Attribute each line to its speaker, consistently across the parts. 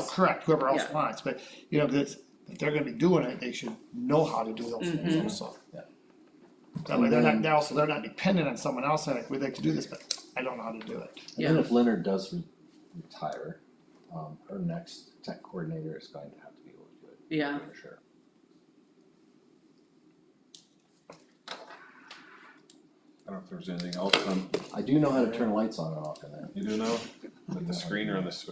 Speaker 1: else.
Speaker 2: Correct, whoever else
Speaker 1: Yeah.
Speaker 2: wants, but, you know, that's, if they're gonna be doing it, they should know how to do those things also.
Speaker 3: Yeah.
Speaker 2: That way, they're not, they're also, they're not dependent on someone else, like, we'd like to do this, but I don't know how to do it.
Speaker 3: And then if Leonard does re- retire, um, our next tech coordinator is going to have to be able to do it.
Speaker 1: Yeah.
Speaker 3: For sure.
Speaker 4: I don't know if there was anything else on,
Speaker 3: I do know how to turn lights on and off in there.
Speaker 4: you do know, like the screen or on the, sw-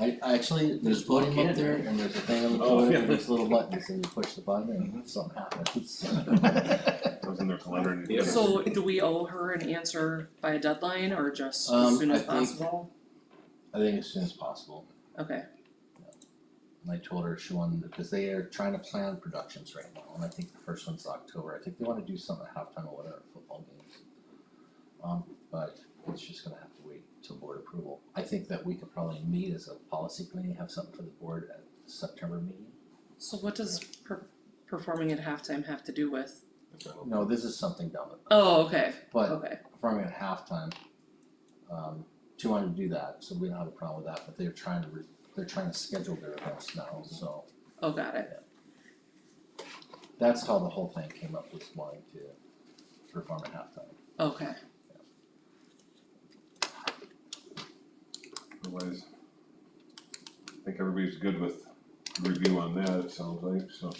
Speaker 3: I, I actually, there's a podium up there and there's a thing on the
Speaker 4: Oh,
Speaker 3: podium
Speaker 4: yeah. Mm-hmm.
Speaker 3: and there's little buttons and you push the button and something happens.
Speaker 4: I was in there with Leonard.
Speaker 3: Yeah.
Speaker 1: So do we owe her an answer by a deadline or just
Speaker 3: Um,
Speaker 1: as soon
Speaker 3: I
Speaker 1: as
Speaker 3: think-
Speaker 1: possible?
Speaker 3: I think as soon as possible.
Speaker 1: Okay,
Speaker 3: And I told her she wanted, because they are trying to plan productions right now, and I think the first one's October, I think they wanna do something at halftime or whatever, football games. Um, but it's just gonna have to wait till board approval. I think that we could probably meet as a policy committee, have something for the board at the September meeting.
Speaker 1: so what does per- performing at halftime have to do with?
Speaker 3: No, this is something dumb,
Speaker 1: Oh, okay,
Speaker 3: but
Speaker 1: okay,
Speaker 3: performing at halftime, um, she wanted to do that, so we don't have a problem with that, but they're trying to, re- they're trying to schedule their events now, so.
Speaker 1: oh, got it,
Speaker 3: That's how the whole thing came up with wanting to perform at halftime.
Speaker 1: okay.
Speaker 4: Otherwise, I think everybody's good with review on that, it sounds like, so.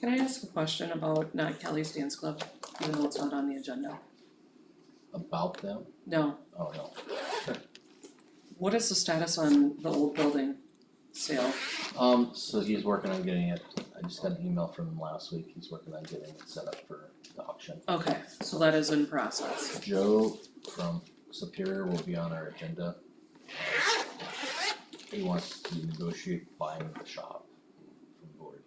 Speaker 1: Can I ask a question about not Kelly's Dance Club, even though it's not on the agenda?
Speaker 3: About them?
Speaker 1: No,
Speaker 3: Oh no.
Speaker 1: what is the status on the old building sale?
Speaker 3: Um, so he's working on getting it. I just got an email from him last week. He's working on getting it set up for the auction.
Speaker 1: Okay, so that is in process,
Speaker 3: Joe from Superior will be on our agenda. He wants to negotiate buying the shop from board.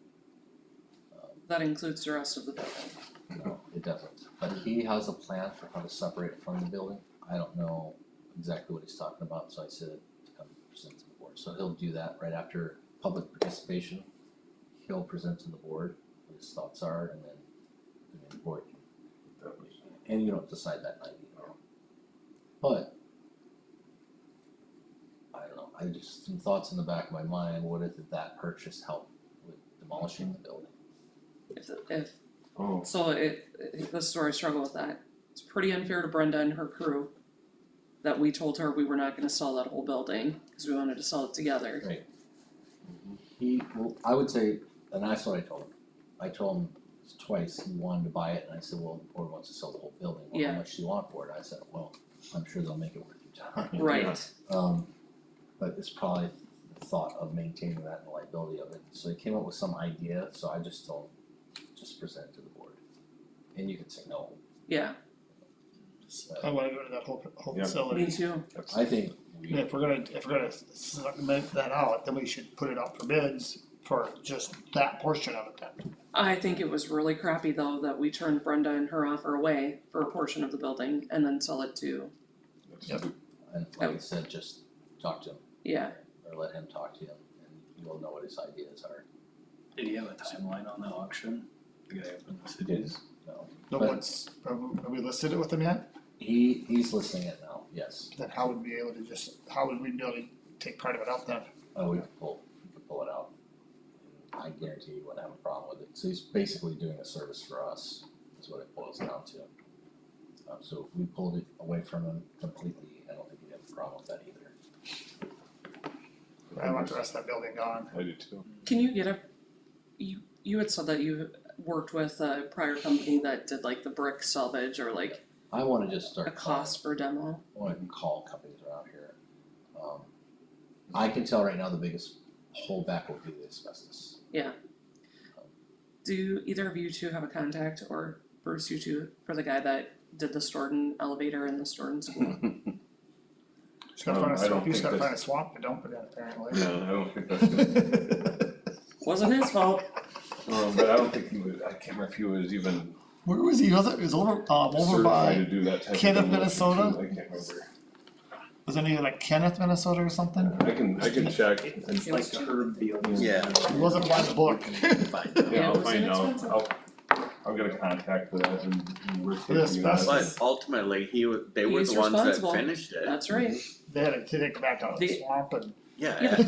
Speaker 3: Um,
Speaker 1: that includes the rest of the building.
Speaker 3: No, it doesn't, but he has a plan for how to separate it from the building, I don't know exactly what he's talking about, so I said to come present to the board, so he'll do that right after public participation. He'll present to the board what his thoughts are and then, and then the board, can-
Speaker 4: that was-
Speaker 3: and you don't decide that night either. But. I don't know, I just, some thoughts in the back of my mind, what if that purchase helped with demolishing the building?
Speaker 1: If if
Speaker 4: Oh,
Speaker 1: So it, it- this is where I struggle with that. It's pretty unfair to Brenda and her crew that we told her we were not gonna sell that whole building, cause we wanted to sell it together.
Speaker 3: Right. He, well, I would say, and that's what I told him, I told him twice, he wanted to buy it, and I said, well, the board wants to sell the whole building, well,
Speaker 1: Yeah.
Speaker 3: how much do you want for it? I said, well, I'm sure they'll make it worth your time.
Speaker 1: Right,
Speaker 3: Um, but it's probably the thought of maintaining that and the liability of it, so he came up with some idea, so I just told him, just present it to the board. And you could say no,
Speaker 1: yeah,
Speaker 3: but
Speaker 2: I wanna go to that whole, whole
Speaker 4: Yeah.
Speaker 1: me
Speaker 2: facility,
Speaker 1: too,
Speaker 4: that's,
Speaker 3: I think
Speaker 2: and
Speaker 3: we,
Speaker 2: if we're gonna, if we're gonna segment that out, then we should put it out for bids for just that portion of it then.
Speaker 1: I think it was really crappy though that we turned Brenda and her offer away for a portion of the building and then sell it to,
Speaker 4: that's
Speaker 2: Yep.
Speaker 4: stupid.
Speaker 3: and like I said, just talk to him,
Speaker 1: yeah.
Speaker 3: or let him talk to him, and you'll know what his ideas are.
Speaker 5: Did he have a timeline on the auction? The guy opened the
Speaker 3: It is. No,
Speaker 2: No
Speaker 3: But-
Speaker 2: one's, have we- have we listed it with them yet?
Speaker 3: he, he's listening it now, yes,
Speaker 2: Then how would we be able to just, how would we be able to take part of it out then?
Speaker 3: oh, we could pull, we could pull it out. I guarantee you wouldn't have a problem with it, so he's basically doing a service for us, is what it boils down to. Um, so if we pulled it away from him completely, I don't think he'd have a problem with that either.
Speaker 2: I want the rest of that building gone.
Speaker 4: I do too.
Speaker 1: Can you get a, you, you had said that you worked with a prior company that did like the brick salvage or like
Speaker 3: I wanna just start.
Speaker 1: a cost for demo?
Speaker 3: I wanna call companies around here. Um, I can tell right now the biggest holdback will be the asbestos.
Speaker 1: Do either of you two have a contact, or Bruce, you two, for the guy that did the Storton elevator in the Storton school?
Speaker 2: Just gotta
Speaker 4: Um,
Speaker 2: find a
Speaker 4: I don't
Speaker 2: swamp, you just
Speaker 4: think
Speaker 2: gotta find a swamp to dump it in apparently.
Speaker 4: No, I don't think that's good,
Speaker 1: Wasn't his fault.
Speaker 4: um, but I don't think he was, I can't remember if he was even
Speaker 2: Where was he, was it, it was over, um, over
Speaker 4: certified to
Speaker 2: by,
Speaker 4: do that type of thing.
Speaker 2: Kenneth,
Speaker 4: like,
Speaker 2: Minnesota?
Speaker 4: I can't remember,
Speaker 2: was it near like Kenneth, Minnesota or something?
Speaker 4: I can, I can check, and-
Speaker 5: It's like Herb Beal.
Speaker 3: Yeah.
Speaker 2: It wasn't by the book.
Speaker 1: Yeah, it
Speaker 4: yeah, I'll
Speaker 1: was
Speaker 4: find out,
Speaker 1: inexpensive.
Speaker 4: I'll, I'll get a contact for that and, and we're
Speaker 2: For the
Speaker 4: taking you guys.
Speaker 2: asbestos.
Speaker 6: But ultimately, he wa- they were
Speaker 1: He's
Speaker 6: the ones that
Speaker 1: responsible.
Speaker 6: finished it.
Speaker 1: That's right.
Speaker 2: They had to take it back out of the
Speaker 1: The-
Speaker 2: swamp and
Speaker 6: Yeah,
Speaker 1: Yeah,